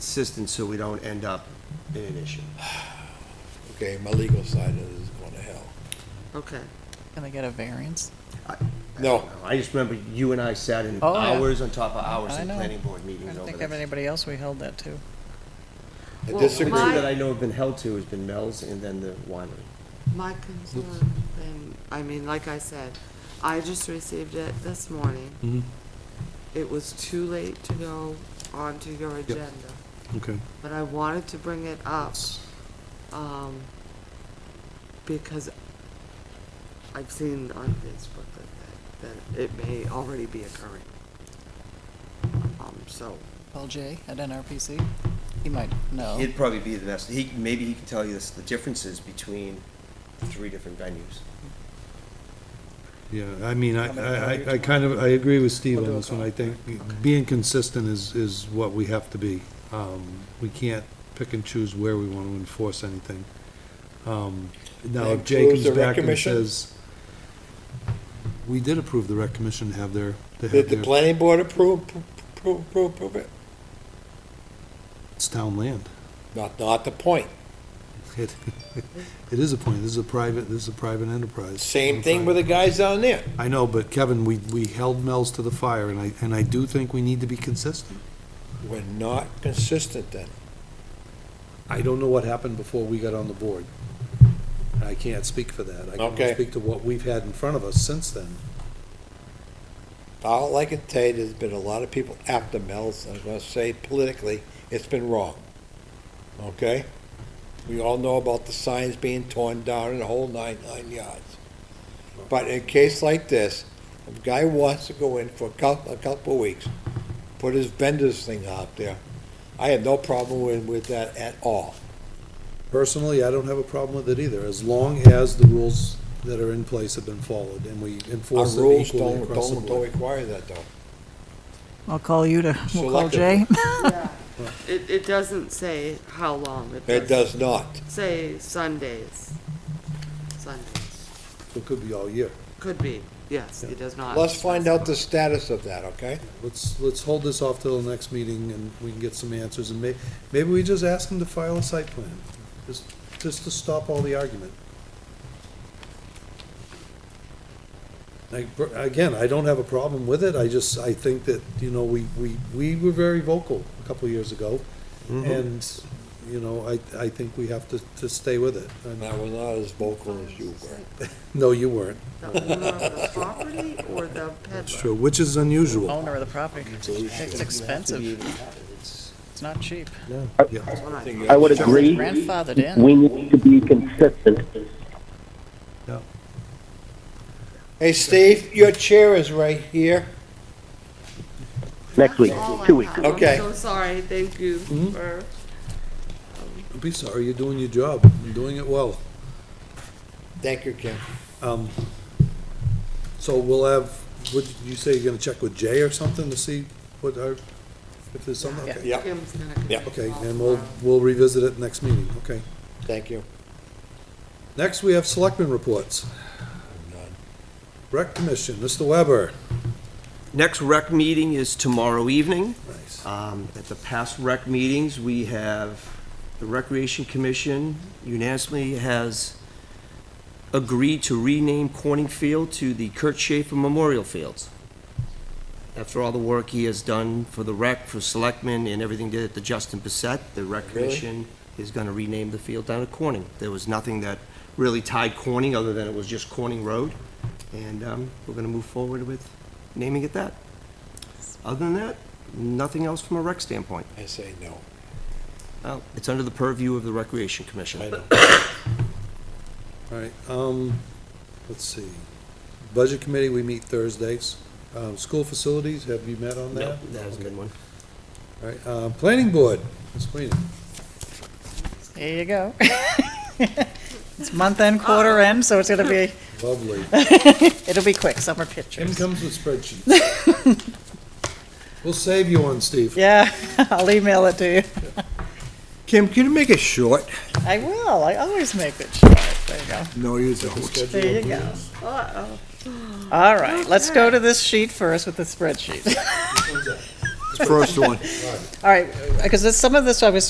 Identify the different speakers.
Speaker 1: consistent so we don't end up in an issue.
Speaker 2: Okay, my legal side is going to hell.
Speaker 3: Okay.
Speaker 4: Can I get a variance?
Speaker 2: No,
Speaker 1: I just remember you and I sat in
Speaker 4: Oh, yeah.
Speaker 1: hours on top of hours
Speaker 4: I
Speaker 1: in
Speaker 4: know.
Speaker 1: planning board
Speaker 4: I
Speaker 1: meetings
Speaker 4: don't
Speaker 1: over
Speaker 4: think of
Speaker 1: this.
Speaker 4: anybody else we held that to.
Speaker 2: I
Speaker 3: Well,
Speaker 1: The two
Speaker 2: disagree.
Speaker 3: my-
Speaker 1: that I know have been held to has been Mel's and then the winery.
Speaker 3: My concern, and, I mean, like I said, I just received it this morning. It was too late to go onto your agenda,
Speaker 5: Okay.
Speaker 3: but I wanted to bring it up, um, because I've seen on Facebook that, that it may already be occurring. Um, so,
Speaker 4: Paul Jay at NRPC, he might know.
Speaker 1: He'd probably be the best, he, maybe he can tell you this, the differences between the three different venues.
Speaker 5: Yeah, I mean, I,
Speaker 4: How many
Speaker 5: I,
Speaker 4: hours?
Speaker 5: I- I kind of, I agree with Steve
Speaker 4: We'll
Speaker 5: on
Speaker 4: do a
Speaker 5: this one, I
Speaker 4: call.
Speaker 5: think being consistent is, is what we have to be. Um, we can't pick and choose where we want to enforce anything. Um, now, if Jay
Speaker 2: Approves
Speaker 5: comes
Speaker 2: the rec
Speaker 5: back and
Speaker 2: commission?
Speaker 5: says, we did approve the rec commission to have their, to
Speaker 2: Did
Speaker 5: have
Speaker 2: the
Speaker 5: their,
Speaker 2: planning board approve, approve, approve, approve it?
Speaker 5: it's town land.
Speaker 2: Not, not the point.
Speaker 5: It, it is a point, this is a private, this is a private enterprise.
Speaker 2: Same thing with the guys down there.
Speaker 5: I know, but Kevin, we, we held Mel's to the fire and I, and I do think we need to be consistent.
Speaker 2: We're not consistent then.
Speaker 5: I don't know what happened before we got on the board. I can't speak for that. I can
Speaker 2: Okay.
Speaker 5: only speak to what we've had in front of us since then.
Speaker 2: All I can tell you, there's been a lot of people after Mel's, I'm gonna say politically, it's been wrong. Okay? We all know about the signs being torn down and the whole nine, nine yards. But in a case like this, if a guy wants to go in for a couple, a couple of weeks, put his vendor's thing out there, I have no problem with, with that at all.
Speaker 5: Personally, I don't have a problem with it either, as long as the rules that are in place have been followed and we
Speaker 2: Our
Speaker 5: enforce them
Speaker 2: rules
Speaker 5: equally
Speaker 2: don't,
Speaker 5: across the
Speaker 2: don't, don't
Speaker 5: board.
Speaker 2: require that though.
Speaker 4: I'll call you to, we'll call Jay.
Speaker 3: yeah, it, it doesn't say how long, it does
Speaker 2: It does not.
Speaker 3: say Sundays. Sundays,
Speaker 5: It could be all year.
Speaker 3: could be, yes, it does not.
Speaker 2: Let's find out the status of that, okay?
Speaker 5: Let's, let's hold this off till the next meeting and we can get some answers and may, maybe we just ask them to file a site plan. Just, just to stop all the argument. Like, br- again, I don't have a problem with it, I just, I think that, you know, we, we, we were very vocal a couple of years ago. Mm-hmm. And, you know, I, I think we have to, to stay with it.
Speaker 2: And
Speaker 5: And-
Speaker 2: I was not as vocal as you were.
Speaker 5: No, you weren't.
Speaker 3: The owner of the property or the peddler?
Speaker 5: which is unusual.
Speaker 4: Owner of the property, it's expensive, it's not cheap.
Speaker 3: That's what I thought.
Speaker 6: I would agree.
Speaker 4: Grandfathered in,
Speaker 6: We need to be consistent.
Speaker 2: Hey, Steve, your chair is right here.
Speaker 6: Next week,
Speaker 3: That's all I
Speaker 6: two weeks.
Speaker 3: have.
Speaker 2: Okay.
Speaker 3: I'm so sorry, thank you for,
Speaker 5: Don't be sorry, you're doing your job, you're doing it well.
Speaker 2: Thank you, Kim.
Speaker 5: Um, so we'll have, would you say you're gonna check with Jay or something to see what our, if there's something? okay.
Speaker 2: Yeah,
Speaker 3: Kim's gonna. give
Speaker 2: Yeah.
Speaker 3: me a
Speaker 5: Okay,
Speaker 3: call
Speaker 5: and we'll,
Speaker 3: tomorrow.
Speaker 5: we'll revisit it next meeting, okay.
Speaker 2: thank you.
Speaker 5: Next, we have selectmen reports. Rec Commission, Mr. Weber.
Speaker 1: Next rec meeting is tomorrow evening.
Speaker 5: Nice.
Speaker 1: Um, At the past rec meetings, we have, the Recreation Commission unanimously has agreed to rename Corning Field to the Kurt Schaefer Memorial Fields. After all the work he has done for the rec, for selectmen, and everything did at the Justin Bissett, the Rec
Speaker 2: Really?
Speaker 1: Commission is gonna rename the field down at Corning. There was nothing that really tied Corning, other than it was just Corning Road, and um, we're gonna move forward with naming it that. Other than that, nothing else from a rec standpoint.
Speaker 2: I say no.
Speaker 1: Uh, It's under the purview of the Recreation Commission.
Speaker 2: I know.
Speaker 5: All right, um, let's see. Budget Committee, we meet Thursdays. Um, school facilities, have you met on
Speaker 1: No,
Speaker 5: that?
Speaker 1: that was a good one.
Speaker 5: All right, uh, Planning Board, Ms. Queenie.
Speaker 4: there you go. It's month end, quarter end, so it's gonna be,
Speaker 5: Lovely.
Speaker 4: it'll be quick, summer
Speaker 5: Kim
Speaker 4: pictures.
Speaker 5: comes with spreadsheets. We'll save you one, Steve.
Speaker 4: Yeah, I'll email it to you.
Speaker 2: Kim, can you make it short?
Speaker 4: I will, I always make it short, there you go.
Speaker 2: No, you don't.
Speaker 4: There you go. All right, let's go to this sheet first with the spreadsheet.
Speaker 2: First one.
Speaker 4: All right, because some of this I was